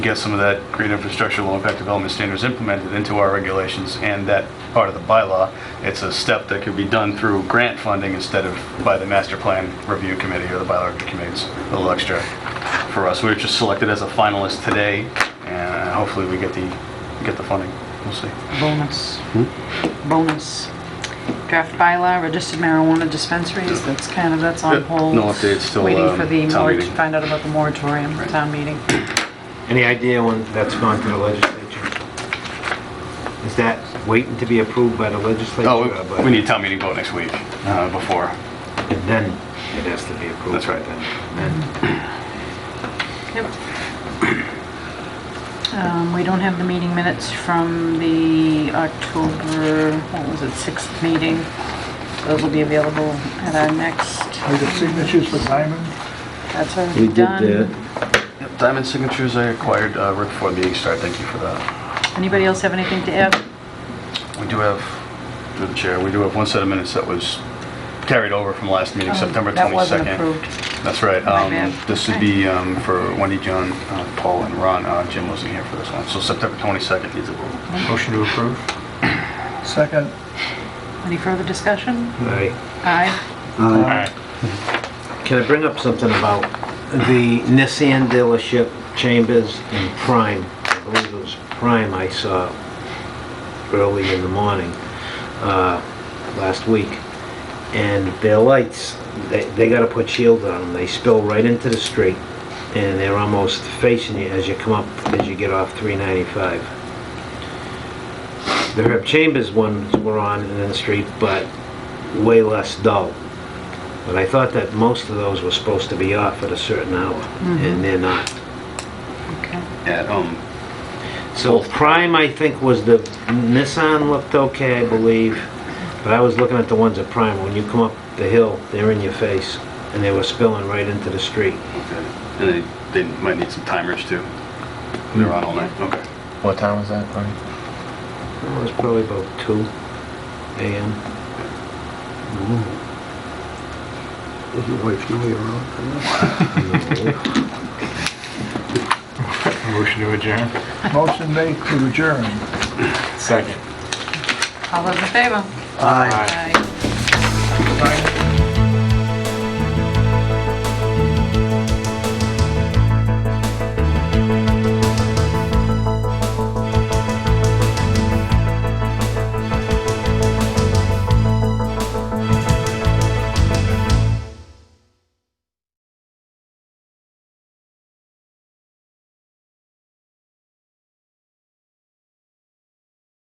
get some of that green infrastructure, low impact development standards implemented into our regulations and that part of the bylaw. It's a step that could be done through grant funding instead of by the master plan review committee or the bylaw review committee. It's A little extra for us. We were just selected as a finalist today and hopefully we get the, get the funding. We'll see. Bonus. Hmm? Bonus. Draft bylaw, registered marijuana dispensaries, that's kind of, that's on Yeah, hold. no update, still, Waiting for um, the, town mor- meeting. find out about the moratorium, town meeting. Any idea when that's going to the legislature? Is that waiting to be approved by the legislature? or Oh, by- we- we need town meeting vote next week uh, before. And Then it has to be approved. That's right. by Then. Then- Um, We don't have the meeting minutes from the October, what was it, 6th meeting. Those will be available at our next, I got signatures for Diamond. that's already We did done. that. Yep, Diamond signatures I acquired uh, right before the meeting started. Thank you for that. Anybody else have anything to add? We do have, through the chair, we do have one set of minutes that was carried over from last meeting, Oh, September 22nd. That wasn't approved. That's right. My Um, bad. This would Okay. be um, for Wendy, John, uh, Paul, and Ron. Uh, Jim wasn't here for this one. So September 22nd needs approval. Motion to approve? Second, Any further discussion? Aye. Aye. Uh, Can I bring up something about the Nissan dealership, Chambers and Prime? I believe it was Prime I saw early in the morning, uh, last week. And their lights, they, they gotta put shield on them. They spill right into the street. And they're almost facing you as you come up, as you get off 395. The Herb Chambers ones were on and in the street, but way less dull. But I thought that most of those were supposed to be off at a certain hour, and they're not. Okay. At, um, So Prime, I think, was the, Nissan looked okay, I believe, but I was looking at the ones at Prime. When you come up the hill, they're in your face, and they were spilling right into the street. okay. And they- they might need some timers too. They're on all night. Okay. What time was that, Ernie? It was probably about two AM. Does your wife know you're on? Motion to adjourn. motion made to adjourn. Second. All those in favor? Aye. Aye. Diamond.